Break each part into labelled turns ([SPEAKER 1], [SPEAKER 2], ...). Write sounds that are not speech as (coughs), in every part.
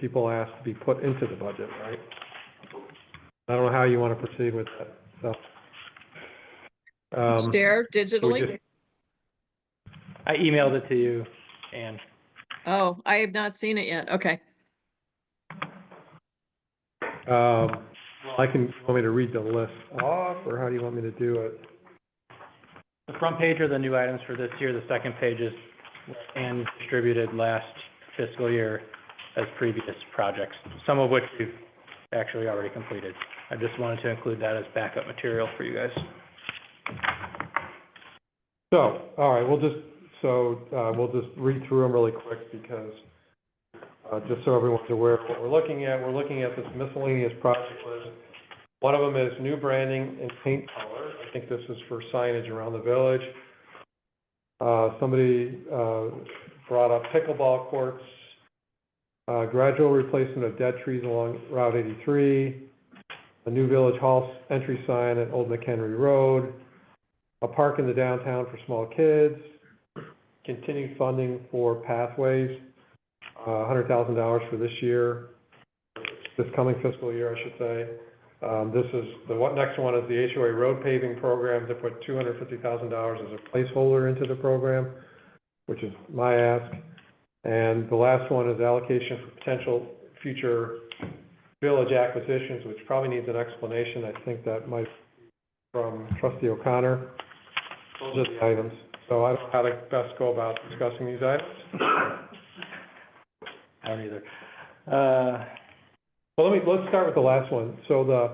[SPEAKER 1] people asked to be put into the budget, right? I don't know how you want to proceed with that, so. Um,
[SPEAKER 2] It's there
[SPEAKER 1] so we
[SPEAKER 2] digitally?
[SPEAKER 1] just-
[SPEAKER 3] I emailed it to you, and
[SPEAKER 2] Oh, I have not seen it yet. Okay.
[SPEAKER 1] um, I can, you want me to read the list off, or how do you want me to do it?
[SPEAKER 3] the front page are the new items for this year, the second page is and distributed last fiscal year as previous projects, some of which we've actually already completed. I just wanted to include that as backup material for you guys.
[SPEAKER 1] So, all right, we'll just, so, uh, we'll just read through them really quick because, uh, just so everyone's aware of what we're looking at, we're looking at this miscellaneous project list. One of them is new branding and paint color. I think this is for signage around the village. Uh, somebody, uh, brought up pickleball courts, uh, gradual replacement of dead trees along Route eighty-three, a new village hall entry sign at Old McHenry Road, a park in the downtown for small kids, continued funding for pathways, uh, hundred thousand dollars for this year, this coming fiscal year, I should say. Um, this is, the one, next one is the HOA road paving program, to put two hundred fifty thousand dollars as a placeholder into the program, which is my ask. And the last one is allocation for potential future village acquisitions, which probably needs an explanation. I think that might from trustee O'Connor. Those are the items. So I don't know how to best go about discussing these items.
[SPEAKER 3] (coughs) I don't either. Uh,
[SPEAKER 1] Well, let me, let's start with the last one. So the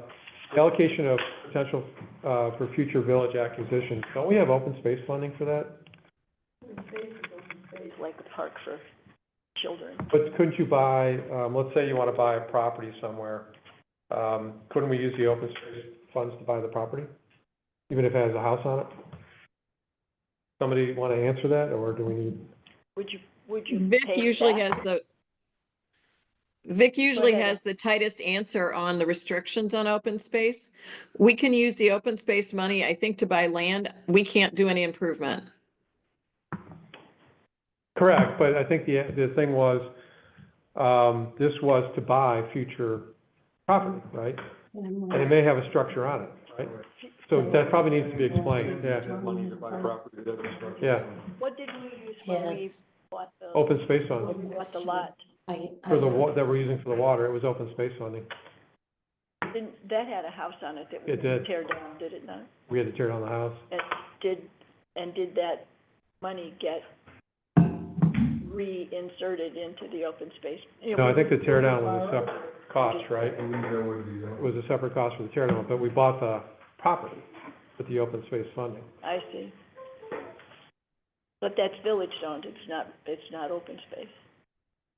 [SPEAKER 1] allocation of potential, uh, for future village acquisitions, don't we have open space funding for that?
[SPEAKER 4] like a park for children.
[SPEAKER 1] But couldn't you buy, um, let's say you want to buy a property somewhere, um, couldn't we use the open space funds to buy the property? Even if it has a house on it? Somebody want to answer that, or do we need?
[SPEAKER 4] Would you, would you?
[SPEAKER 2] Vic
[SPEAKER 4] pay
[SPEAKER 2] usually
[SPEAKER 4] back?
[SPEAKER 2] has the, Vic usually
[SPEAKER 4] ahead.
[SPEAKER 2] has the tightest answer on the restrictions on open space. We can use the open space money, I think, to buy land. We can't do any improvement.
[SPEAKER 1] Correct, but I think the, the thing was, um, this was to buy future property, right? And it may have a structure on it, right? So that probably needs to be explained, yeah.
[SPEAKER 5] Money to buy property that is structured.
[SPEAKER 1] Yeah,
[SPEAKER 4] What did we use when we
[SPEAKER 5] Yes,
[SPEAKER 4] bought the,
[SPEAKER 1] open space funding,
[SPEAKER 4] when we bought the lot?
[SPEAKER 5] I,
[SPEAKER 1] for the,
[SPEAKER 5] I,
[SPEAKER 1] wa- that we're using for the water, it was open space funding.
[SPEAKER 4] Didn't, that had a house on it that we
[SPEAKER 1] It did.
[SPEAKER 4] tear down, did it not?
[SPEAKER 1] We had to tear down the house.
[SPEAKER 4] And did, and did that money get reinserted into the open space? You know,
[SPEAKER 1] No, I think the tear down was a separate cost, right?
[SPEAKER 5] I believe that would be,
[SPEAKER 1] It was a separate cost for the tear down, but we bought the property with the open space funding.
[SPEAKER 4] I see. But that's village owned, it's not, it's not open space.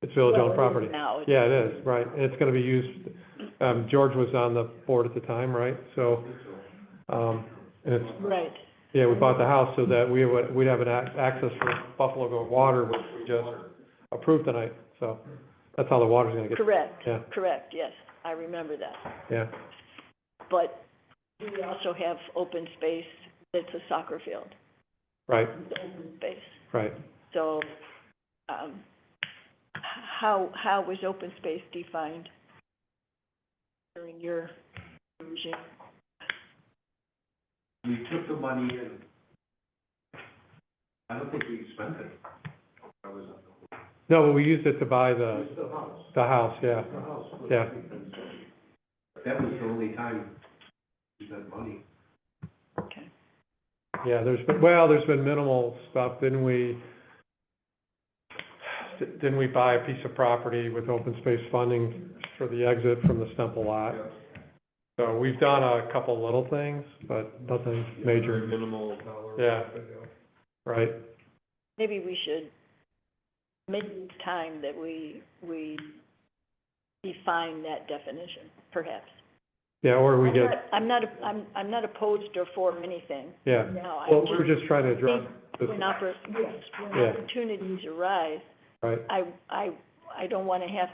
[SPEAKER 1] It's village-owned
[SPEAKER 4] Well, it is
[SPEAKER 1] property.
[SPEAKER 4] Now, it's
[SPEAKER 1] Yeah, it is, right, and it's gonna be used, um, George was on the board at the time, right, so, um, and it's,
[SPEAKER 4] right.
[SPEAKER 1] yeah, we bought the house so that we would, we'd have an ac- access for Buffalo Go Water, which we just approved tonight, so, that's how the water's gonna get,
[SPEAKER 4] Correct,
[SPEAKER 1] Yeah.
[SPEAKER 4] correct, yes, I remember that.
[SPEAKER 1] yeah.
[SPEAKER 4] But we also have open space that's a soccer field,
[SPEAKER 1] Right,
[SPEAKER 4] open space.
[SPEAKER 1] right,
[SPEAKER 4] So, um, h- how, how was open space defined during your regime?
[SPEAKER 6] we took the money and I don't think we spent it. I was,
[SPEAKER 1] no, but we used it to buy
[SPEAKER 6] it
[SPEAKER 1] the,
[SPEAKER 6] was the house,
[SPEAKER 1] the house, yeah,
[SPEAKER 6] the house. was-
[SPEAKER 1] Yeah.
[SPEAKER 6] That was the only time we spent money.
[SPEAKER 4] Okay.
[SPEAKER 1] yeah, there's been, well, there's been minimal stuff, didn't we? Didn't we buy a piece of property with open space funding for the exit from the Stemple lot? So we've done a couple little things, but nothing major,
[SPEAKER 5] minimal dollar.
[SPEAKER 1] Yeah. right?
[SPEAKER 4] Maybe we should, make it's time that we, we define that definition, perhaps.
[SPEAKER 1] Yeah, or we get,
[SPEAKER 4] I'm not, I'm not- I'm, I'm not opposed or for anything
[SPEAKER 1] yeah.
[SPEAKER 4] now. I
[SPEAKER 1] Well,
[SPEAKER 4] just-
[SPEAKER 1] we're just trying to address this,
[SPEAKER 4] When oppor- yes, when
[SPEAKER 1] Yeah.
[SPEAKER 4] opportunities arise,
[SPEAKER 1] right?
[SPEAKER 4] I, I, I don't want to have,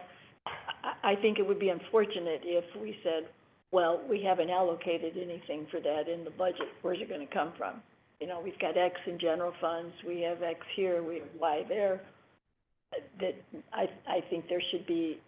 [SPEAKER 4] I, I think it would be unfortunate if we said, well, we haven't allocated anything for that in the budget, where's it going to come from? You know, we've got X in general funds, we have X here, we have Y there. Uh, That, I, I think there should be